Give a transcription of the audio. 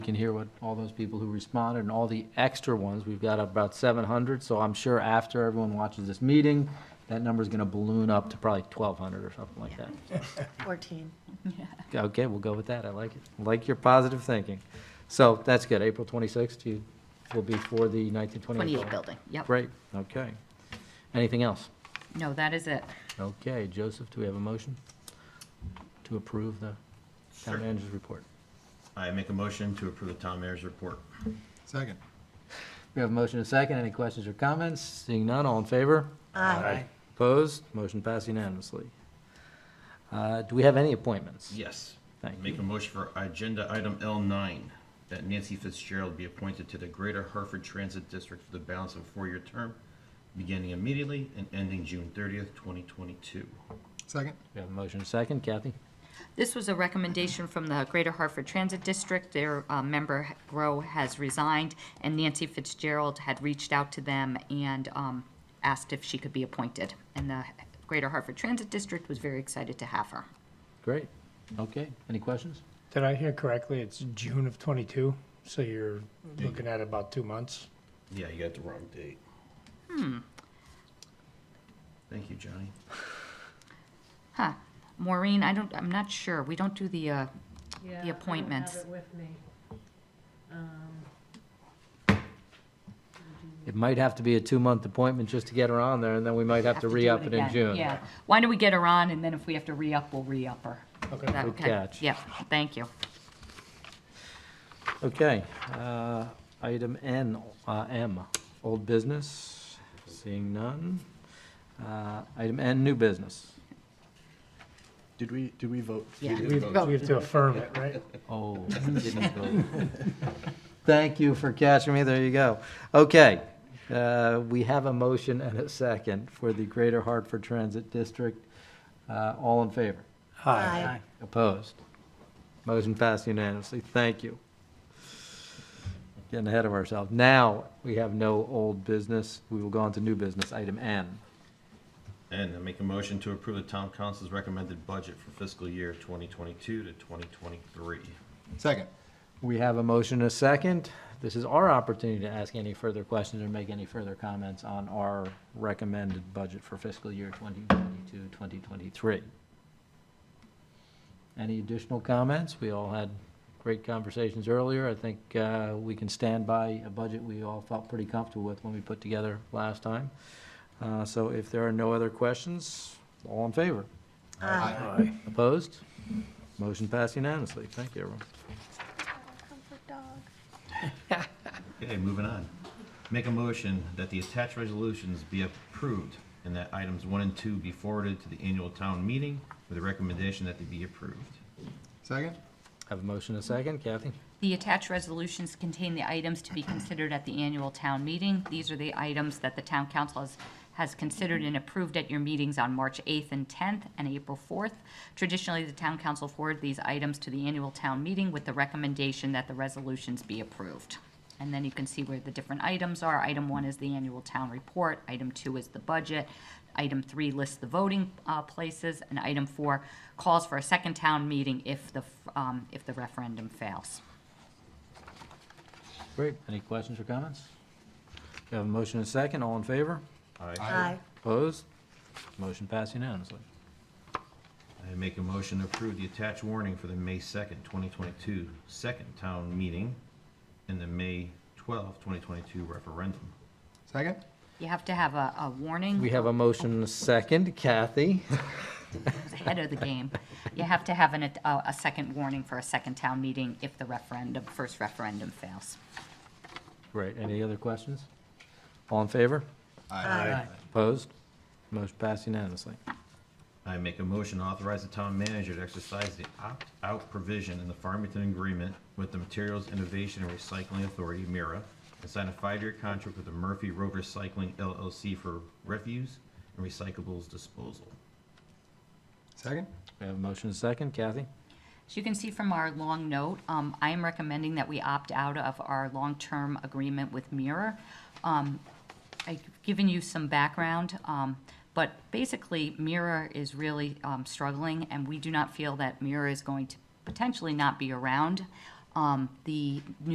can hear what all those people who responded and all the extra ones. We've got about 700, so I'm sure after everyone watches this meeting, that number's going to balloon up to probably 1,200 or something like that. 14. Okay, we'll go with that. I like it. I Like your positive thinking. So that's good. April 26th you- will be for the 1928 28 building. building, yep. Great, okay. Anything else? No, that is it. Okay, Joseph, do we have a motion to approve the Sure. town manager's report? I make a motion to approve the town mayor's report. Second. We have a motion and a second. Any questions or comments? Seeing none, all in favor? Aye. Opposed? Motion passed unanimously. Uh, Do we have any appointments? Yes. Thank Make you. a motion for agenda item L nine, that Nancy Fitzgerald be appointed to the Greater Hartford Transit District for the balance of a four-year term, beginning immediately and ending June thirtieth, twenty twenty-two. Second. We have a motion and a second. Kathy? This was a recommendation from the Greater Hartford Transit District. Their uh, member, Grow, has resigned, and Nancy Fitzgerald had reached out to them and um, asked if she could be appointed. And the Greater Hartford Transit District was very excited to have her. Great. Okay, any questions? Did I hear correctly? It's June of twenty-two, so you're looking at about two months. Yeah, you got the wrong date. Hmm. Thank you, Johnny. Huh. Maureen, I don't, I'm not sure. We don't do the, uh, Yeah, appointments. I don't have it with me. Um, It might have to be a two-month appointment just to get her on there, and then we might have to do re-up it in again. June. Yeah. Why don't we get her on, and then if we have to re-up, we'll re-up her. Is that Okay. Good catch. Yeah, thank you. Okay, uh, item N, uh, M, old business, seeing none. Uh, Item N, new business. Did we, did we vote? Yeah. We have we have to affirm it, right? Oh, didn't go. Thank you for catching me, there you go. Okay, uh, we have a motion and a second for the Greater Hartford Transit District. Uh, All in favor? Aye. Opposed? Motion passed unanimously. Thank you. Getting ahead of ourselves. Now, we have no old business. We will go on to new business, item N. And I make a motion to approve the town council's recommended budget for fiscal year twenty twenty-two to twenty twenty-three. Second. We have a motion and a second. This is our opportunity to ask any further questions or make any further comments on our recommended budget for fiscal year 2022, 2023. Any additional comments? We all had great conversations earlier. I think uh, we can stand by a budget we all felt pretty comfortable with when we put together last time. Uh, So if there are no other questions, all in favor? Aye. Opposed? Motion passed unanimously. Thank you, everyone. Okay, moving on. Make a motion that the attached resolutions be approved and that items one and two be forwarded to the annual town meeting with a recommendation that they be approved. Second. Have a motion and a second. Kathy? The attached resolutions contain the items to be considered at the annual town meeting. These are the items that the town council has, has considered and approved at your meetings on March 8th and 10th and April 4th. Traditionally, the town council forward these items to the annual town meeting with the recommendation that the resolutions be approved. And then you can see where the different items are. Item one is the annual town report. Item two is the budget. Item three lists the voting uh, places. And item four calls for a second town meeting if the, um, if the referendum fails. Great. Any questions or comments? We have a motion and a second. All in favor? Aye. Aye. Opposed? Motion passed unanimously. I make a motion to approve the attached warning for the May second, twenty twenty-two, second town meeting and the May twelfth, twenty twenty-two referendum. Second. You have to have a, a warning We have a motion and a second. Kathy? ahead of the game. You have to have an, a, a second warning for a second town meeting if the referendum, first referendum fails. Great. Any other questions? All in favor? Aye. Opposed? Motion passed unanimously. I make a motion to authorize the town manager to exercise the opt-out provision in the Farmington Agreement with the Materials Innovation and Recycling Authority, MIRA, and sign a five-year contract with the Murphy Road Recycling LLC for refuse and recyclables disposal. Second. We have a motion and a second. Kathy? As you can see from our long note, um, I am recommending that we opt out of our long-term agreement with Mirror. Um, I've given you some background, um, but basically Mirror is really, um, struggling and we do not feel that Mirror is going to potentially not be around. um, the